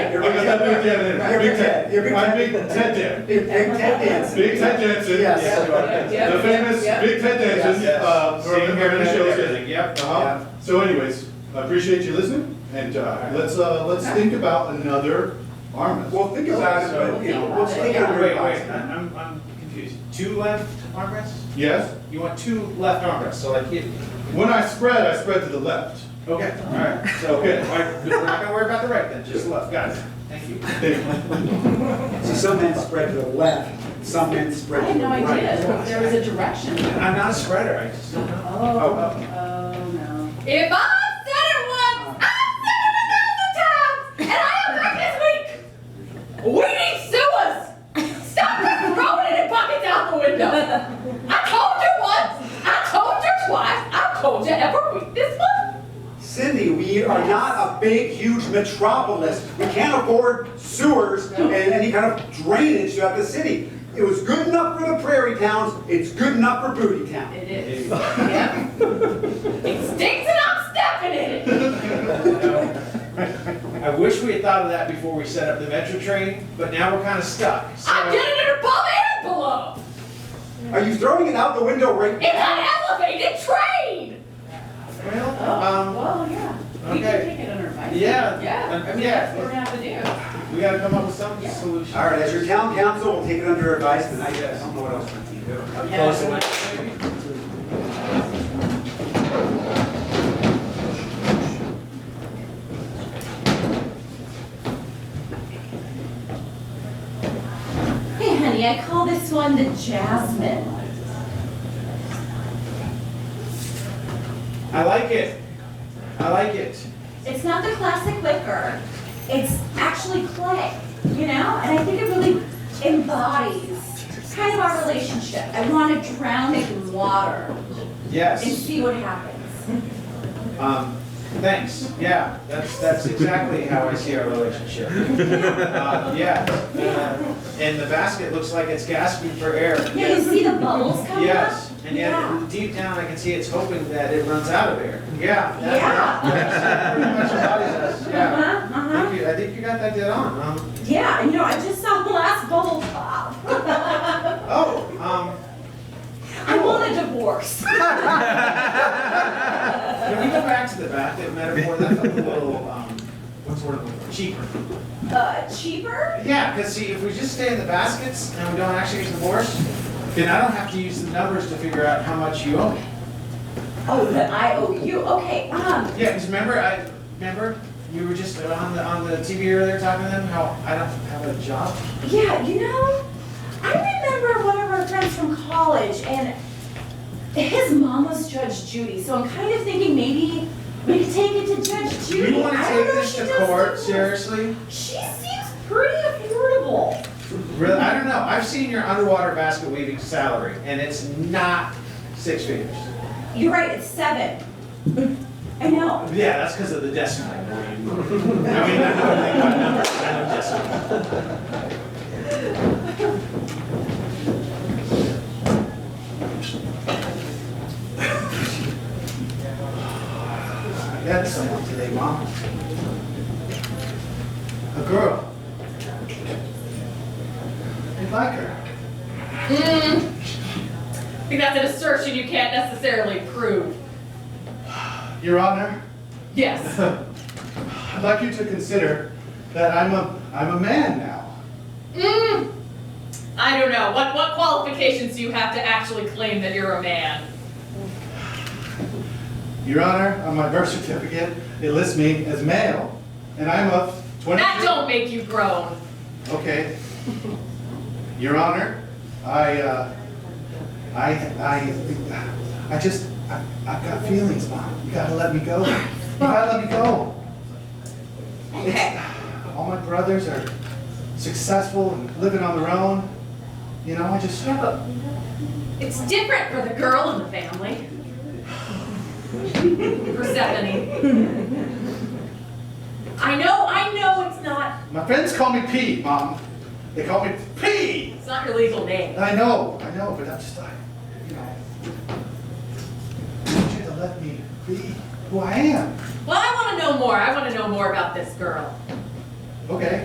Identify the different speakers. Speaker 1: got Big Ted in.
Speaker 2: You're Big Ted. You're Big
Speaker 1: I'm Big
Speaker 2: Ted.
Speaker 1: Ted Ted.
Speaker 2: Big Ted Danson.
Speaker 1: Big Ted Danson.
Speaker 2: Yes.
Speaker 1: The
Speaker 3: Yep,
Speaker 1: famous
Speaker 3: yep, yep.
Speaker 1: Big Ted Danson,
Speaker 4: Yes.
Speaker 1: uh, from
Speaker 4: Same
Speaker 1: the
Speaker 4: haircut,
Speaker 1: shows.
Speaker 4: everything, yep.
Speaker 1: Uh-huh. So anyways, I appreciate you listening, and, uh, let's, uh, let's think about another arm wrestle.
Speaker 2: Well, think about it, but, you know, we'll think
Speaker 4: Wait, wait,
Speaker 2: of it.
Speaker 4: wait, I'm, I'm confused. Two left armrests?
Speaker 1: Yes?
Speaker 4: You want two left armrests, so like here.
Speaker 1: When I spread, I spread to the left.
Speaker 4: Okay, all right, so, okay, all right, we're not gonna worry about the right then, just left, got it, thank you.
Speaker 2: So some men spread to the left, some men
Speaker 3: I
Speaker 2: spread
Speaker 3: had
Speaker 2: to the
Speaker 3: no
Speaker 2: right.
Speaker 3: idea, there was a direction.
Speaker 4: I'm not a spreader, I just don't know.
Speaker 3: Oh, oh, no.
Speaker 5: If I've said it once, I've said it a thousand times, and I am back this week. We need sewers. Stop just throwing it in buckets out the window. I told you once, I told you twice, I've told you every week this month.
Speaker 2: Cindy, we are not a big, huge metropolis. We can't afford sewers and any kind of drainage throughout the city. It was good enough for the prairie towns, it's good enough for booty town.
Speaker 3: It is.
Speaker 5: Yeah. It stinks and I'm stepping in it.
Speaker 4: I wish we had thought of that before we set up the metro train, but now we're kinda stuck, so.
Speaker 5: I did it in above and below.
Speaker 2: Are you throwing it out the window right
Speaker 5: It's
Speaker 2: now?
Speaker 5: an elevated train.
Speaker 4: Well, um,
Speaker 3: Well, yeah, we can
Speaker 4: okay.
Speaker 3: take it under advisement.
Speaker 4: yeah. Uh,
Speaker 3: Yeah, I mean, that's what we're
Speaker 4: Yeah,
Speaker 3: gonna have
Speaker 4: we gotta come up with some solution.
Speaker 2: All right, as your town council, we'll take it under advisement. I don't know what else we can do.
Speaker 3: to do.
Speaker 4: Close
Speaker 3: Yeah.
Speaker 5: Hey, honey, I call this one the Jasmine.
Speaker 4: I like it, I like it.
Speaker 5: It's not the classic liquor. It's actually clay, you know? And I think it really embodies kind of our relationship. I want to drown it in water
Speaker 4: Yes.
Speaker 5: and see what happens.
Speaker 4: Um, thanks, yeah, that's, that's exactly how I see our relationship. Uh, Yeah, uh, and the basket looks like it's gasping for air.
Speaker 5: Yeah, you see the bubbles coming up?
Speaker 4: Yes, and yet, deep down, I can see it's hoping that it runs out of air. Yeah. that-
Speaker 5: Yeah.
Speaker 4: that pretty much embodies us, yeah.
Speaker 5: Uh-huh, uh-huh.
Speaker 4: Thank you, I think you got that dead on, um,
Speaker 5: Yeah, and you know, I just saw the last bubble pop.
Speaker 4: oh, um,
Speaker 5: I want a divorce.
Speaker 4: can we go back to the basket metaphor, that's a little, um, what's the word, I'm looking for? cheaper.
Speaker 5: Uh, cheaper?
Speaker 4: Yeah, because see, if we just stay in the baskets and we don't actually use the boards, then I don't have to use the numbers to figure out how much you owe me.
Speaker 5: Oh, the IOU, okay, um,
Speaker 4: Yeah, because remember, I, remember, you were just on the, on the TV earlier talking to them, how I don't have a job?
Speaker 5: yeah, you know, I remember one of our friends from college and his mom was Judge Judy, so I'm kind of thinking maybe we could take it to Judge Judy.
Speaker 4: You want to
Speaker 5: I
Speaker 4: take
Speaker 5: don't know if
Speaker 4: this
Speaker 5: she
Speaker 4: to
Speaker 5: does
Speaker 4: court,
Speaker 5: divorce.
Speaker 4: seriously?
Speaker 5: She seems pretty affordable.
Speaker 4: Really, I don't know, I've seen your underwater basket weaving salary, and it's not six figures.
Speaker 5: You're right, it's seven. I know.
Speaker 4: Yeah, that's because of the decimal. I mean, I know nothing about numbers, but I know decimal. I got someone today, Mom. A girl. I like her.
Speaker 5: Mm. I think that's an assertion you can't necessarily prove.
Speaker 1: Your Honor,
Speaker 5: Yes.
Speaker 1: I'd like you to consider that I'm a, I'm a man now.
Speaker 5: Mm. I don't know. What what qualifications do you have to actually claim that you're a man?
Speaker 1: Your Honor, on my birth certificate, it lists me as male, and I'm of twenty.
Speaker 5: That don't make you grown.
Speaker 1: Okay. Your Honor, I, uh, I, I, I just, I, I've got feelings, Mom. You gotta let me go. You gotta let me go. It's- All my brothers are successful and living on their own. You know, I just,
Speaker 5: Yeah, but it's different for the girl in the family. Persephone. I know, I know it's not
Speaker 1: my friends call me P, Mom. They call me P.
Speaker 5: it's not your legal name.
Speaker 1: I know, I know, but I'm just, I, you know, I want you to let me be who I am.
Speaker 5: Well, I want to know more. I want to know more about this girl.
Speaker 1: Okay.